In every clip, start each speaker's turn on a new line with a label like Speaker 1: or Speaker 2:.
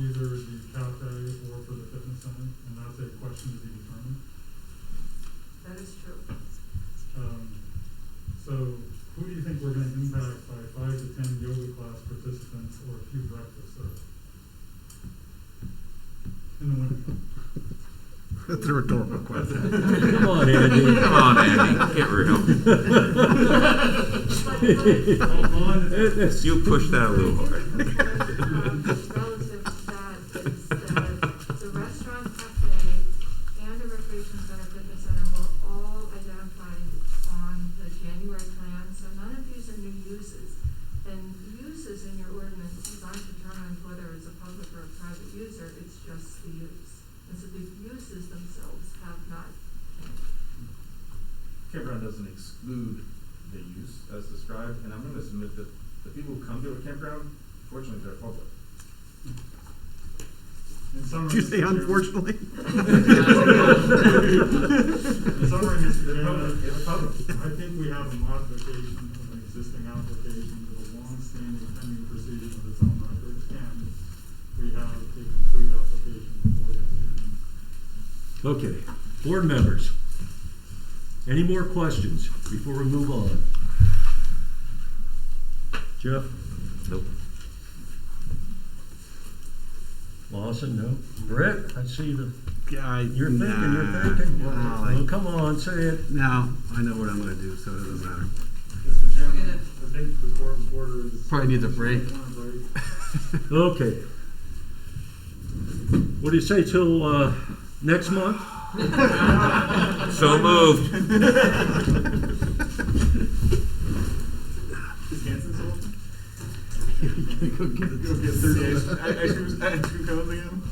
Speaker 1: either the cafe or for the fitness center, and that's a question to be determined.
Speaker 2: That is true.
Speaker 1: Um, so who do you think we're gonna impact by five to ten yoga class participants or a few breakfasts served? In the winter.
Speaker 3: That's a rhetorical question.
Speaker 4: Come on, Andy.
Speaker 5: Come on, Andy. Get real.
Speaker 1: It's-
Speaker 5: You pushed that a little hard.
Speaker 2: Relative to um, that, is that the restaurant, cafe, and the recreation center, fitness center were all identified on the January plan, so none of these are new uses. And uses in your ordinances aren't determined whether it's a public or a private user, it's just the use. And so the uses themselves have not changed.
Speaker 6: campground doesn't exclude the use as described, and I'm gonna submit that the people who come to a campground, fortunately, they're public.
Speaker 1: In summary,
Speaker 3: Did you say
Speaker 1: Mr. Chairman-
Speaker 3: unfortunately?
Speaker 1: In summary, Mr.
Speaker 6: They're
Speaker 1: Chairman,
Speaker 6: public, it's public.
Speaker 1: I think we have a modification of an existing application with a long-standing pending proceeding of its own record, and we have a complete application before you.
Speaker 4: Okay, board members, any more questions before we move on? Jeff?
Speaker 5: Nope.
Speaker 4: Lawson, no? Brett, I see the,
Speaker 3: Yeah,
Speaker 4: you're thinking, you're
Speaker 3: nah.
Speaker 4: thinking.
Speaker 3: Well,
Speaker 4: Well,
Speaker 3: I,
Speaker 4: come on, say it.
Speaker 3: now I know what I'm going to do, so it doesn't matter.
Speaker 1: Mr. Chairman, I think the court reporter is.
Speaker 3: Probably needs a break.
Speaker 1: Want a break?
Speaker 4: Okay. What do you say till, uh, next month?
Speaker 5: So moved.
Speaker 6: Is Hanson sold?
Speaker 3: Go get it.
Speaker 6: again?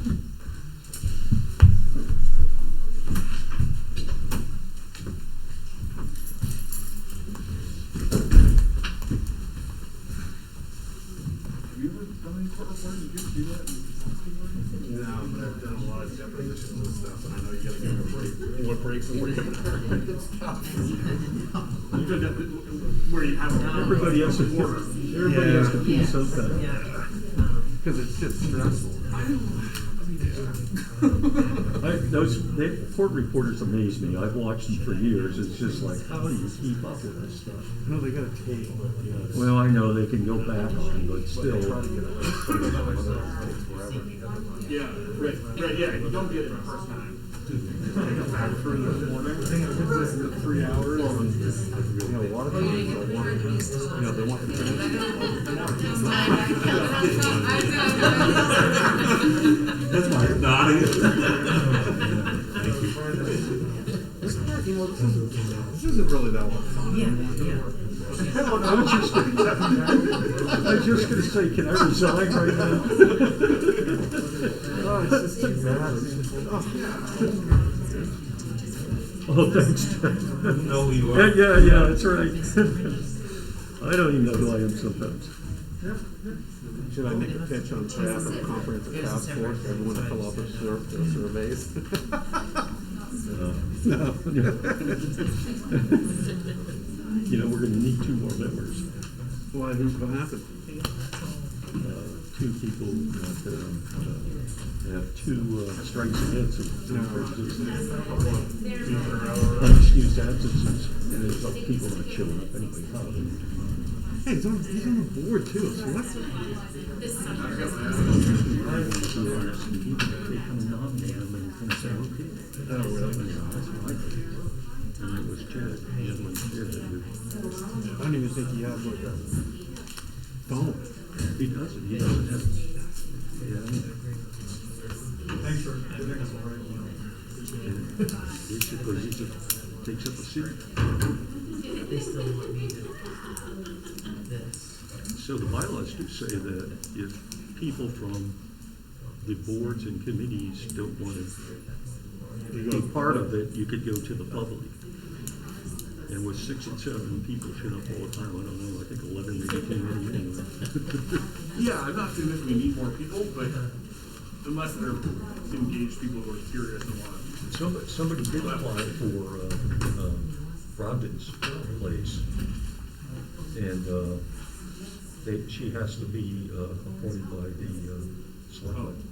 Speaker 6: Have you ever done any court reports? Did you do that?
Speaker 3: No, but I've done a lot of depositions and stuff, and I know you gotta give a break. You want breaks before you come in.
Speaker 6: You did that where you have
Speaker 4: Everybody has to, everybody has to pee sometime.
Speaker 3: Because it's just stressful.
Speaker 4: I, those, they, court reporters amaze me. I've watched them for years. It's just like, how do you keep up with this stuff?
Speaker 3: No, they got a tape.
Speaker 4: Well, I know they can go back on, but still,
Speaker 6: Yeah, right, right, yeah, you don't get it the first time.
Speaker 5: That's why I'm nodding.
Speaker 3: This isn't really that long.
Speaker 4: I was just, I was just gonna say, can I resign right now? Oh, thanks, Ted.
Speaker 5: No, you
Speaker 4: Yeah,
Speaker 5: are.
Speaker 4: yeah, yeah, that's right. I don't even know who I am sometimes.
Speaker 3: Should I make a pitch on behalf of the comprehensive task force, for everyone to fill out their sur- their surveys? No.
Speaker 4: You know, we're gonna need two more members,
Speaker 3: Why, who's gonna happen?
Speaker 4: uh, two people that, uh, uh, have two uh, strikes against them. Unexcused absences, and there's other people not showing up anyway, huh?
Speaker 3: Hey, he's on, he's on the board too, so what?
Speaker 4: Who are some people that they come and nominate them and come say, okay. Oh, really? That's what I think. And it was Jared Hanlon, Jared, who-
Speaker 3: I don't even think he has like a phone.
Speaker 4: he doesn't, he doesn't have, yeah.
Speaker 1: Thanks for giving us a break. Appreciate it.
Speaker 4: It's because he just takes up a seat. So the bylaws do say that if people from the boards and committees don't want to be part of it, you could go to the public. And with six and seven people shut up all the time, I don't know, I think eleven maybe came in anyway.
Speaker 7: Yeah, I'm not saying that we need more people, but unless they're engaged people who are curious and want to.
Speaker 4: Somebody, somebody did apply for, uh, um, Robin's place. And, uh, they, she has to be, uh, appointed by the, uh, selectmen.